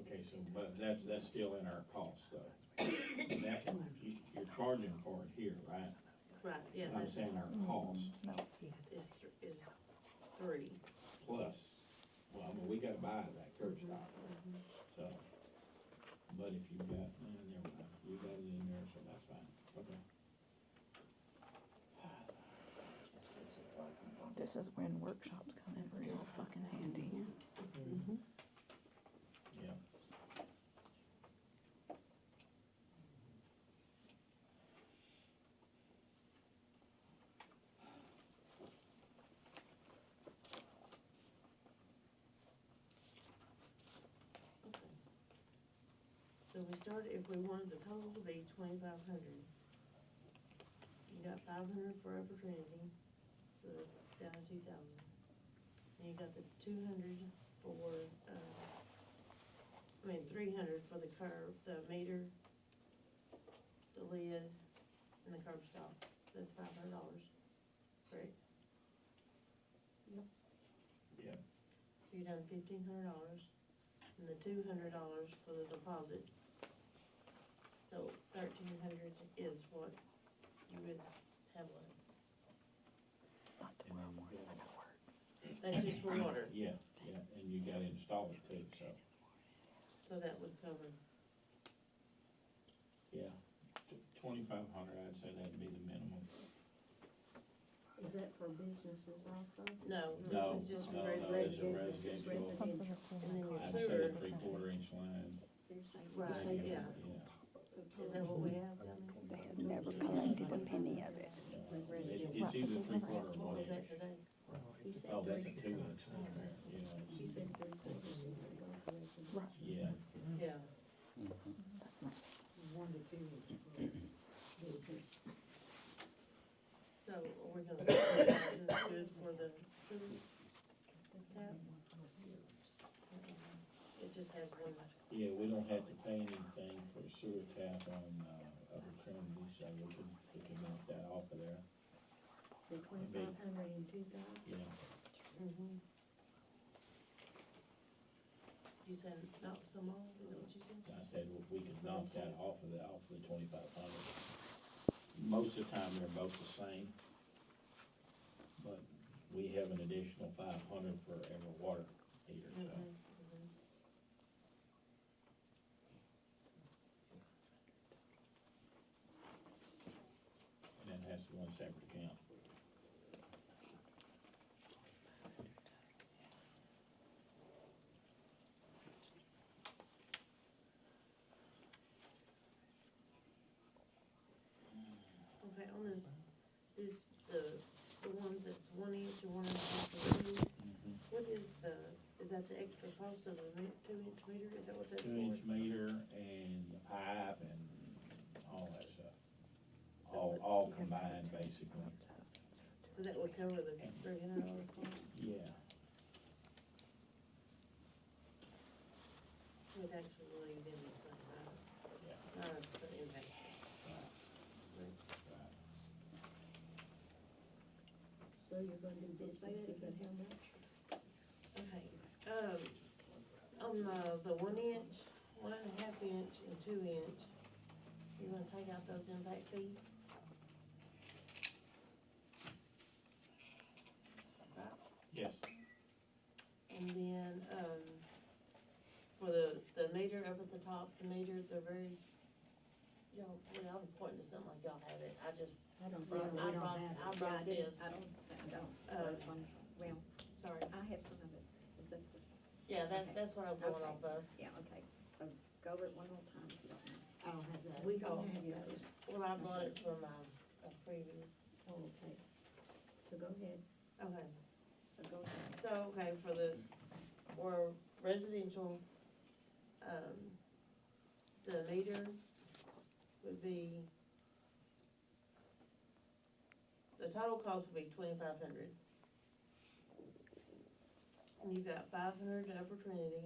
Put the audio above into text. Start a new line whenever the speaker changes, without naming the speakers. Okay, so, but that's, that's still in our cost, though. That, you- you're charging for it here, right?
Right, yeah,
I'm
that's,
saying our cost
No,
is, th- is three.
plus, well, I mean, we gotta buy that curb stop, so. But if you got, eh, never mind, you got it in there, so that's fine, okay.
this is when workshops come in real fucking handy.
Yeah.
Okay. So we started, if we wanted the total to be twenty-five hundred. You got five hundred for Upper Trinity, so that's down to two thousand. And you got the two hundred for, uh, I mean, three hundred for the curb, the meter, the lid, and the curb stop. That's five hundred dollars, correct? Yep.
Yeah,
So you're down fifteen hundred dollars, and the two hundred dollars for the deposit. So thirteen hundred is what you would have left.
Not tomorrow morning, I got work.
That's just for water,
yeah, yeah, and you gotta install it too, so,
so that would cover,
yeah. Twenty-five hundred, I'd say that'd be the minimum.
Is that for businesses also?
no,
No,
this is just
no,
for
no, it's a
residential.
Just
residential.
residential.
I'd say a three-quarter inch line.
Right,
So-
yeah.
Yeah.
so-
Is that what we have down
They have never collected a penny of it.
It's, it's either three-quarter or
there? What was that
one-inch.
today?
He said
Oh, that's a
three-
two-inch line there,
She
yeah.
said three quarters of the golf course.
Right.
Yeah,
Yeah,
One to two is for business.
so are we gonna say this is good for the sewer tap? It just has one,
yeah, we don't have to pay anything for sewer tap on, uh, Upper Trinity, so we can, we can knock that off of there,
So twenty-five hundred and two thousand?
yeah.
Mhm. You said not so long, is that what you said?
I said, well, we could knock that off of the, off the twenty-five hundred. Most of the time, they're both the same. But we have an additional five hundred for every water heater, so.
Mhm, mhm.
And that has to be one separate account.
Okay, on this, this, the, the ones that's one inch and one inch off the roof,
Mm-hmm.
what is the, is that the extra cost of a mi- two inch meter, is that what that's for?
Two-inch meter and the pipe and all that stuff. All, all combined, basically.
So that would cover the three hundred dollar cost,
Yeah,
would actually leave in the same,
yeah,
uh, uh, the impact.
right.
So you're gonna do businesses at how much?
Okay, um, on the, the one inch, one and a half inch and two inch, you gonna take out those impact fees?
Yes,
And then, um, for the, the meter up at the top, the meter, the very, y'all, well, I'm pointing to something like y'all have it, I just,
I don't,
Well,
we
I
don't
brought-
have it.
I brought
Yeah, didn't-
this.
I don't, I don't, so it's one, well,
sorry.
I have some of it. Is that the-
Yeah, that,
Okay.
that's what I'm going
Okay.
off of.
Yeah, okay, so go over it one more time if you don't Oh. mind.
I don't have that.
We
don't
don't have those.
Well, I brought it from, um, a previous,
Oh, okay. So go ahead,
okay.
so go ahead.
So, okay, for the, or residential, um, the meter would be, the total cost would be twenty-five hundred. And you got five hundred to Upper Trinity,